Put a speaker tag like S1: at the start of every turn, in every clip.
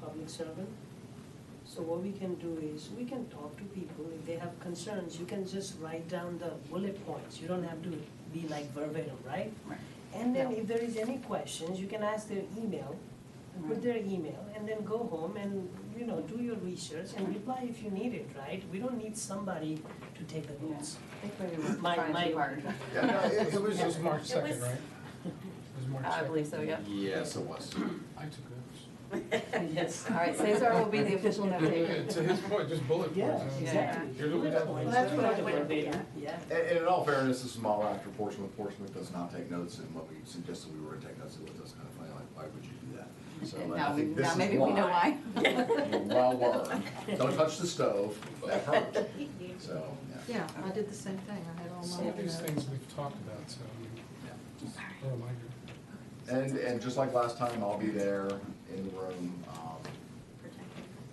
S1: public servant. So what we can do is, we can talk to people, if they have concerns, you can just write down the bullet points, you don't have to be like verbatim, right?
S2: Right.
S1: And then
S2: Yeah.
S1: if there is any questions, you can ask their email, and put
S2: Right.
S1: their email, and then go home and, you know, do your research and reply if you need it, right? We don't need somebody to take the notes. My-
S2: Trying
S1: my-
S2: too hard.
S3: Yeah, no, it, it was
S4: It was
S3: just,
S4: March
S2: It was-
S4: second, right? It was March
S2: I
S4: second.
S2: believe so, yeah.
S3: yes, it was.
S4: I took notes.
S1: Yes.
S2: All right, Cesar will be the official note taker.
S4: To his point, just bullet points.
S1: Yeah,
S4: huh?
S1: exactly.
S4: Here's what we
S1: Bullet
S4: got.
S1: points.
S5: That's what I
S1: Not
S5: would-
S1: verbatim. Yeah.
S3: And, and in all fairness, this is my last report from Portsmouth does not take notes, and what we suggested we were to take notes, it was just kind of funny, like, why would you do that? So
S2: And
S3: I
S2: now, we-
S3: think this
S2: now
S3: is
S2: maybe we know why.
S3: Well, learned. don't touch the stove, that hurt, so, yeah.
S5: Yeah, I did the same thing, I had all
S4: Some
S5: my.
S4: of these things we've talked about, so oh, I mean, just a reminder.
S3: And, and just like last time, I'll be there in the room, um,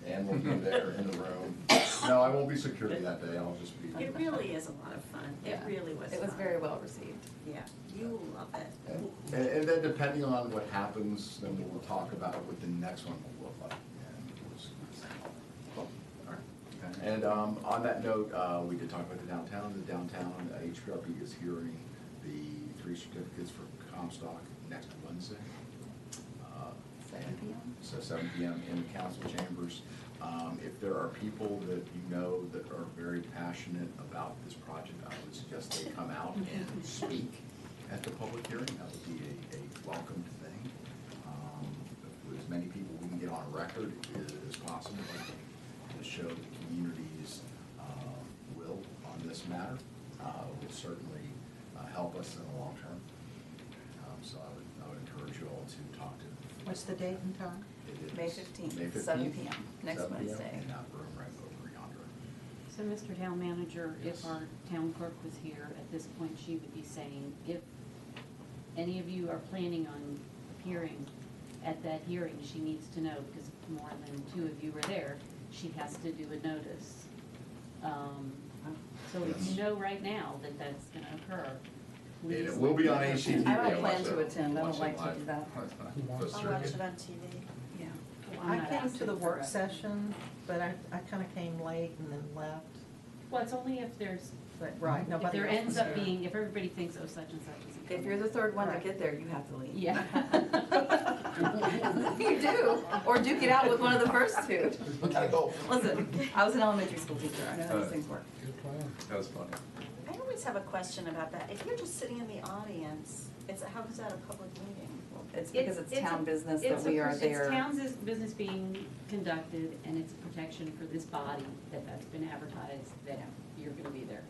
S3: and we'll be there in the room. No, I won't be security that day, I'll just be.
S6: It really is a lot of fun. It
S2: Yeah.
S6: really was
S2: It was
S6: fun.
S2: very well received.
S6: Yeah, you will love it.
S3: And, and then depending on what happens, then we'll talk about what the next one will look like. And we'll just- Cool. All right. And um, on that note, uh, we did talk about the downtown, the downtown uh, HPRB is hearing the three certificates for Comstock next Wednesday. Uh,
S2: Seven PM?
S3: so seven PM in the council chambers. Um, If there are people that you know that are very passionate about this project, I would suggest they come out and speak at the public hearing. That would be a, a welcomed thing. Um, if As many people we can get on record as possible to show the community's um, will on this matter uh, will certainly uh, help us in the long term. Um, So I would, I would encourage you all to talk to
S5: uh, What's the date and time?
S3: it is.
S2: May 15th,
S3: May
S2: 7
S3: 15th,
S2: p.m., next
S3: 7 p.m.,
S2: Wednesday.
S3: In that room right over yonder.
S7: So, Mr. Town Manager,
S3: Yes.
S7: if our town clerk was here, at this point, she would be saying, if any of you are planning on appearing at that hearing, she needs to know, because if more than two of you are there, she has to do a notice. Um, So if
S3: Yes.
S7: you know right now that that's gonna occur,
S3: And
S7: please.
S3: it will be on HGTV.
S2: I don't
S3: Yeah,
S2: plan
S3: watch
S2: to
S3: it-
S2: attend. I don't
S3: watch it
S2: like to
S3: live.
S2: do that.
S4: Who wants
S3: That's
S4: to?
S5: I'll watch
S4: Get-
S5: it
S6: on TV.
S2: Yeah.
S7: Well, I'm
S5: I
S7: not
S5: came to
S7: asking
S5: the
S7: for
S5: work
S7: it.
S5: session, but I, I kinda came late and then left,
S7: Well, it's only if there's,
S5: but, right,
S7: if
S5: nobody
S7: there
S5: else was
S7: ends up
S5: there.
S7: being, if everybody thinks, oh, such and such is.
S2: If you're the third one to
S5: Right.
S2: get there, you have to leave.
S7: Yeah.
S2: You do, or duke it out with one of the first two.
S3: Gotta go.
S2: Listen, I was an elementary school teacher, I know how these things work.
S4: Good plan.
S3: That was funny.
S6: I always have a question about that. If you're just sitting in the audience, it's, how is that a public meeting?
S2: It's because it's
S7: a-
S2: town business
S7: it's
S2: that
S7: a
S2: we
S7: pers-
S2: are
S7: It's
S2: there.
S7: town's is- business being conducted, and it's a protection for this body that that's been advertised, that you're gonna be there,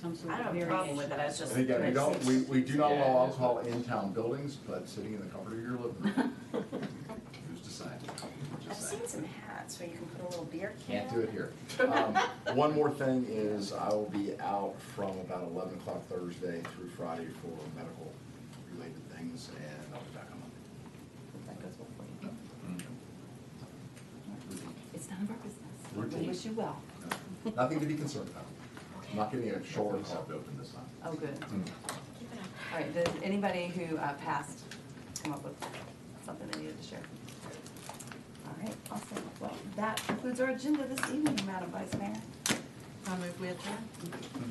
S7: some sort
S6: I
S7: of
S6: don't have
S7: variation.
S6: a problem with it, I was
S3: And
S6: just.
S3: again, we don't, we, we do not
S4: Yeah.
S3: allow alcohol in town buildings, but sitting in the comfort of your living room. Who's deciding?
S6: I've seen some hats where you can put a little beer can.
S3: Can't do it here. Um, One more thing is I will be out from about eleven o'clock Thursday through Friday for medical related things and I'll be back on Monday.
S2: That goes well for you.
S3: No,
S2: It's none of our business. We
S3: Routine.
S2: wish you well.
S3: Nothing to be concerned about. I'm not getting a shoulder club open this time.
S2: Oh, good.
S6: Keep it up.
S2: All right, does anybody who uh, passed come up with something they needed to share? All right, awesome. Well, that concludes our agenda this evening, Madam Vice Mayor.
S5: I moved with her.